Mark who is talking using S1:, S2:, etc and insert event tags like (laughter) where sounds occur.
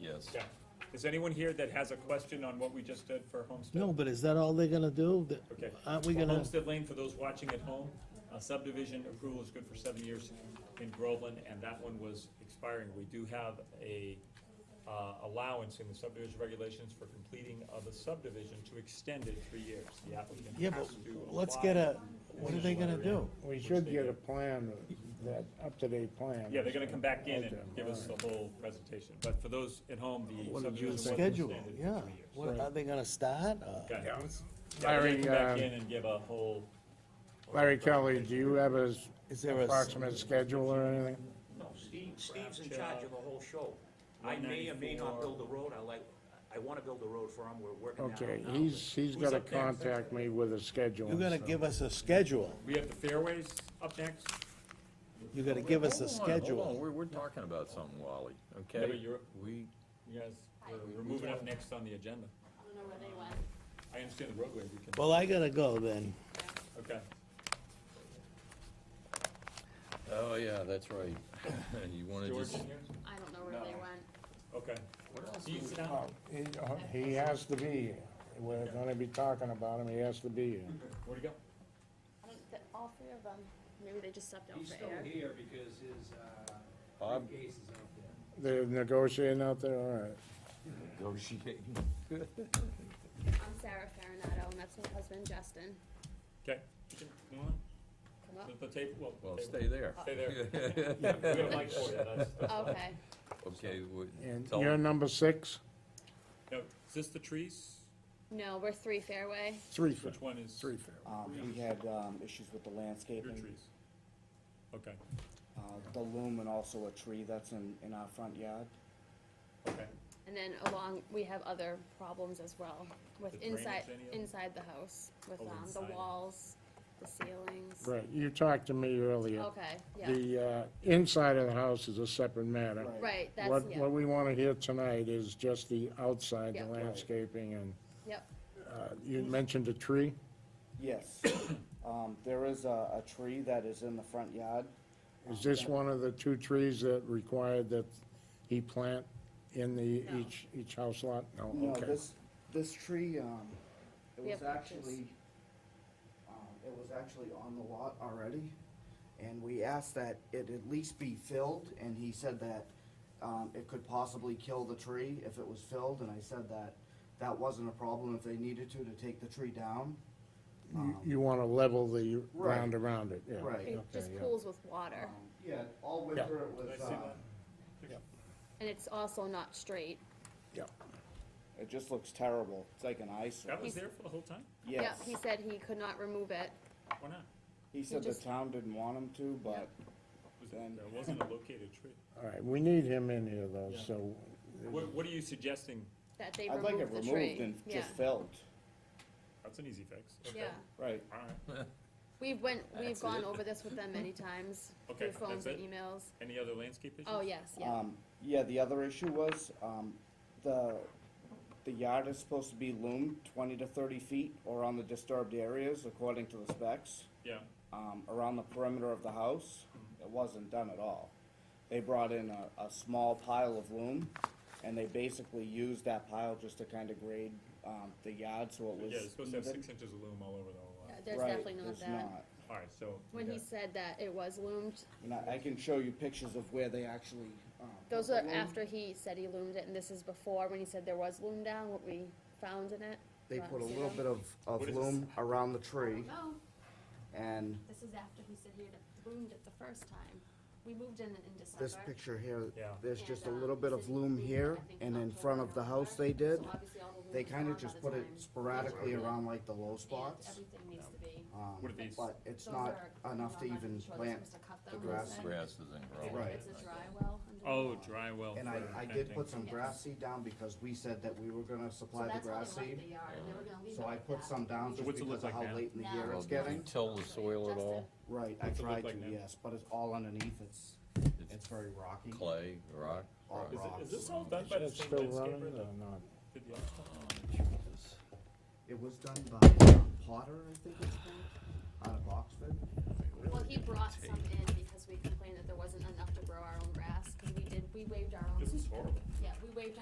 S1: is.
S2: Yeah. Is anyone here that has a question on what we just did for Homestead?
S3: No, but is that all they're gonna do? That-
S2: Okay.
S3: Aren't we
S2: For
S3: gonna,
S2: Homestead Lane, for those watching at home, uh, subdivision approval is good for seven years in Groveland, and that one was expiring. We do have a, uh, allowance in the subdivision regulations for completing of a subdivision to extend it three years. The applicant
S3: yeah,
S2: has
S3: but
S2: to
S3: let's
S2: apply.
S3: get a, what are they gonna do?
S4: We should get a plan, that up-to-date plan.
S2: Yeah, they're gonna come back in and give us the whole presentation, but for those at home, the
S3: What
S2: subdivision
S3: is
S2: was
S3: the schedule?
S2: extended
S3: Yeah,
S2: for three years.
S3: what, are they gonna start? Uh,
S2: Okay. Yeah, they're gonna
S4: Larry,
S2: come back
S4: uh,
S2: in and give a whole.
S4: Larry Kelly, do you have a s-
S3: Is there a s-
S4: approximate schedule or anything?
S5: No, Steve, Steve's in charge of the whole show. I may or may not
S2: 194.
S5: build the road, I like, I wanna build the road for him, we're working that out.
S4: Okay,
S5: now.
S4: he's, he's
S2: Who's
S4: gonna
S2: up next?
S4: contact me with a schedule.
S3: You're gonna
S4: so-
S3: give us a schedule.
S2: We have the fairways up next.
S3: You're gonna give us a
S1: Hold on, hold on,
S3: schedule.
S1: We're, we're talking about something, Wally, okay?
S2: Yeah, but you're-
S1: We,
S2: You guys, we're- we're moving up next on the agenda.
S6: I don't know where they went.
S2: I understand the roadway, we can,
S3: Well, I gotta go then.
S2: okay.
S1: oh, yeah, that's right. (laughs) You wanna
S2: George
S1: just,
S2: in here?
S6: I don't know where they went.
S2: Okay. He's down.
S4: Oh, He oh, he has to be here. We're gonna be talking about him, he has to be here.
S2: Where'd he go?
S6: I don't, th- all three of them. Maybe they just stepped out
S7: He's
S6: for
S7: still
S6: air.
S7: here because his, uh,
S1: Bob?
S7: case is out there.
S4: They're negotiating out there, all right.
S1: negotiate?
S6: I'm Sarah Farinato, and that's my husband, Justin.
S2: Okay. You can- you want (laughs)
S6: Come
S2: it? The the table, well.
S1: (laughs) Well,
S2: the
S1: stay there.
S2: table. Stay there.
S1: (laughs)
S2: Yeah, (laughs) We got a mic for you, that's, that's-
S6: up. Okay.
S1: Okay, we,
S4: And
S1: tell
S4: you're
S1: them,
S4: number six?
S2: no, is this the trees?
S6: No, we're three fairway.
S4: Three,
S2: Which one is?
S4: three fair.
S8: Um, we had, um, issues with the
S2: Your
S8: landscaping,
S2: trees. Okay,
S8: uh, the loom and also a tree that's in, in our front yard.
S2: okay.
S6: And then along, we have other problems as well with
S2: The
S6: inside,
S2: drainage, any of them?
S6: inside the house, with,
S2: Oh,
S6: um, the
S2: inside.
S6: walls, the ceilings.
S4: Right, you talked to me earlier.
S6: Okay, yeah.
S4: The, uh, inside of the house is a separate matter.
S8: Right.
S6: Right, that's,
S4: What,
S6: yeah,
S4: what we wanna hear tonight is just the outside,
S6: Yeah.
S4: the
S6: Right.
S4: landscaping, and,
S6: yep.
S4: uh, you mentioned a tree?
S8: Yes, um, there is a, a tree that is in the front yard.
S4: Is this one of the two trees that required that he plant in the, each, each house lot?
S8: No,
S4: No, okay.
S8: this, this tree, um, it
S6: We
S8: was
S6: have pictures.
S8: actually, um, it was actually on the lot already. And we asked that it at least be filled, and he said that, um, it could possibly kill the tree if it was filled, and I said that that wasn't a problem if they needed to, to take the tree down.
S4: You- You wanna level the
S8: um, Right.
S4: ground around it, yeah.
S8: Right.
S6: It
S4: okay,
S6: just
S4: yeah.
S6: pools with water,
S8: Um, Yeah, all winter it was,
S2: I see
S8: uh,
S6: and it's also not straight.
S4: Yeah.
S8: it just looks terrible, it's like an eyesore.
S2: That was there for the whole time?
S6: Yeah,
S8: Yes,
S6: he said he could not remove it.
S2: Why not?
S8: he said the
S6: just-
S8: town didn't want him to, but
S2: Was
S8: Then-
S2: it, there wasn't a located tree.
S4: All right, we need him in here though,
S2: Yeah.
S4: so,
S2: What, what are you suggesting?
S6: That they
S8: I'd like it
S6: removed the
S8: removed
S6: tree,
S8: and
S6: yeah,
S8: just filled,
S2: That's an easy fix. Okay.
S6: yeah.
S8: right.
S2: All right.
S6: We've went, we've
S1: That's
S6: gone
S1: it.
S6: over this with them many times,
S2: (laughs) Okay,
S6: through phones
S2: that's it?
S6: and emails.
S2: Any other landscape issues?
S6: Oh, yes, yeah,
S8: Um, yeah, the other issue was, um, the, the yard is supposed to be loomed twenty to thirty feet or on the disturbed areas according to the specs.
S2: Yeah,
S8: um, around the perimeter of the house. It wasn't done at all. They brought in a, a small pile of loom, and they basically used that pile just to kind of grade, um, the yard, so it was
S2: yeah, it's supposed to have
S8: even.
S2: six inches of loom all over the whole lot.
S6: Uh, there's
S8: Right,
S6: definitely not
S8: there's
S6: that.
S2: All right, so.
S6: When he said that it was loomed,
S8: And I, I can show you pictures of where they actually, um.
S6: those
S8: put
S6: are
S8: the loom.
S6: after he said he loomed it, and this is before, when he said there was loom down, what we found in it.
S8: They
S6: Not
S8: put a
S6: zero.
S8: little bit of, of
S2: What is
S8: loom around the tree,
S6: No,
S8: and
S6: this is after he said he had loomed it the first time. We moved in in December.
S8: this picture here,
S2: Yeah.
S8: there's just a
S6: And,
S8: little
S6: um,
S8: bit
S6: he
S8: of
S6: said he
S8: loom
S6: loomed it,
S8: here,
S6: I think,
S8: and in
S6: October,
S8: front of the house they
S6: November.
S8: did.
S6: So obviously all the loom
S8: They
S6: was
S8: kind
S6: gone
S8: of
S6: by
S8: just
S6: the
S8: put it
S6: time.
S8: sporadically
S6: And
S8: around like the low spots.
S6: Everything needs to be.
S8: Um,
S2: What are these?
S8: But it's
S6: Those
S8: not
S6: are
S8: enough to
S6: not
S8: even
S6: much, but they're
S8: plant
S6: supposed to cut
S8: the
S6: them,
S8: grass.
S6: is it?
S1: grass isn't growing.
S8: Right.
S6: It's a dry well under.
S2: Oh, dry well.
S8: And I,
S2: for
S8: I did
S2: planting.
S8: put some
S6: Yes.
S8: grass seed down because we said that we were gonna supply the grass seed. So I put some down
S2: So
S8: just
S2: what's it look
S8: because
S2: like
S8: of how
S2: now?
S8: late in the
S6: Now.
S8: year
S1: Well,
S8: it's
S1: did you
S8: getting.
S1: Till the soil at all,
S8: Right, I
S2: What's it look
S8: tried
S2: like
S8: to,
S2: now?
S8: yes, but it's all underneath, it's, it's
S1: It's
S8: very rocky.
S1: clay, rock,
S8: All
S1: rock.
S2: Is it,
S8: rocks.
S2: is this all done by the
S4: it's
S2: same
S4: still running
S2: landscaper
S4: or
S2: that
S4: not?
S2: did the other stuff?
S1: Jesus.
S8: It was done by uh, Potter, I think it's called, out of Oxford.
S6: Well, he brought some in because we complained that there wasn't enough to grow our own grass, cause we did, we waived our own.
S2: This is horrible.
S6: Yeah, we waived